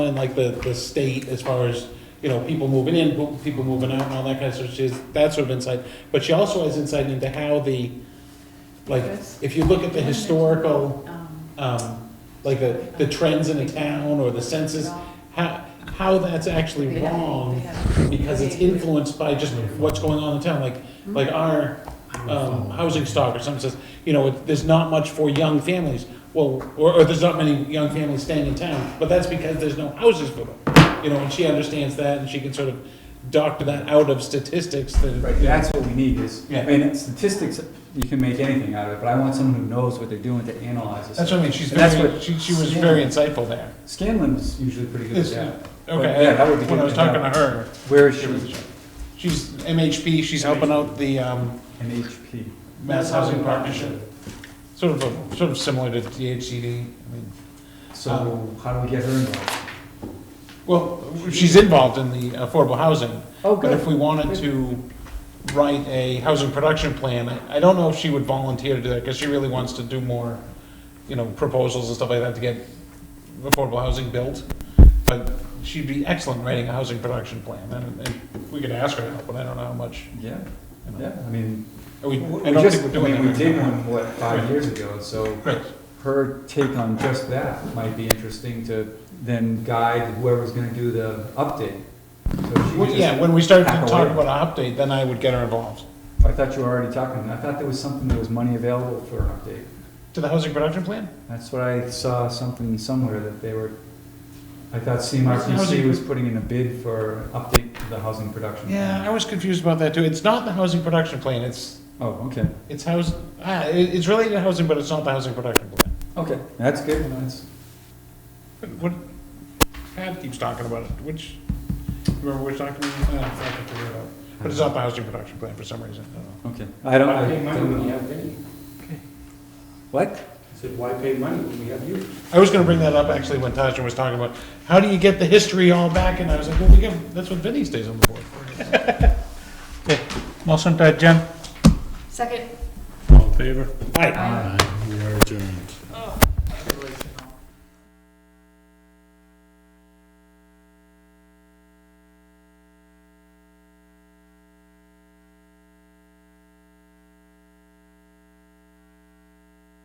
And like the, the state as far as, you know, people moving in, bo- people moving out and all that kind of stuff, she has that sort of insight. But she also has insight into how the, like, Yes. if you look at the historical, Um, um, like the, the trends in a town or the census, how, how that's actually they have- wrong they have- because it's influenced by just what's going on in town, like, like our, um, housing stock or something says, you know, there's not much for young families. Well, or, or there's not many young families staying in town, but that's because there's no houses for them. You know, and she understands that and she can sort of doctor that out of statistics Right, that, that's what we need is, Yeah. I mean, statistics, you can make anything out of it, but I want someone who knows what they're doing to analyze this. that's what I mean, she's And that's very, what- she, she was very insightful there. Scanlon's usually pretty good at Is- that. Okay, yeah, that would be when I good was to talking to know. her, Where is she in she's MHP, she's helping out the, um, HP? Mass Housing Partnership. Sort of, a- sort of similar to DHCD, I mean, So Uh, how do we get her involved? well, she's involved in the affordable housing, Oh, But if we wanted to write a housing production plan, I I don't know if she would volunteer to do that, because she really wants to do more, you know, proposals and stuff like that to get affordable housing built. But she'd be excellent writing a housing production plan, and, and we could ask her to help, but I don't know how much, Yeah, you know. yeah, I mean, Are we- we I don't just, think I we're doing mean, we that. did right one, what, five years ago, so now. Right, her take on just that might be interesting to then guide whoever's gonna do the update. So she Well, just- yeah, when we start to hack talk away. about an update, then I would get her involved. I thought you were already talking, I thought there was something, there was money available for an update. To the housing production plan? That's what I saw something somewhere that they were, I thought CMRPC Housing- was putting in a bid for update to the housing production. Yeah, I was confused about that too, it's not the housing production plan, it's Oh, okay, It's house, ah, it- it's related to housing, but it's not the housing production plan. okay, that's good, that's, What, Pat keeps talking about it, which, remember which document? Ah, I can figure it out. But it's not the housing production plan for some reason, I don't know. okay. I don't, Why I pay money when don't we know. have Vinnie? What? I said, why pay money when we have you? I was gonna bring that up actually when Tasha was talking about, how do you get the history all back? And I was like, well, we give, that's what Vinnie stays on the board for. Okay, motion to adjourn. Second. All in favor? Aye. We are adjourned.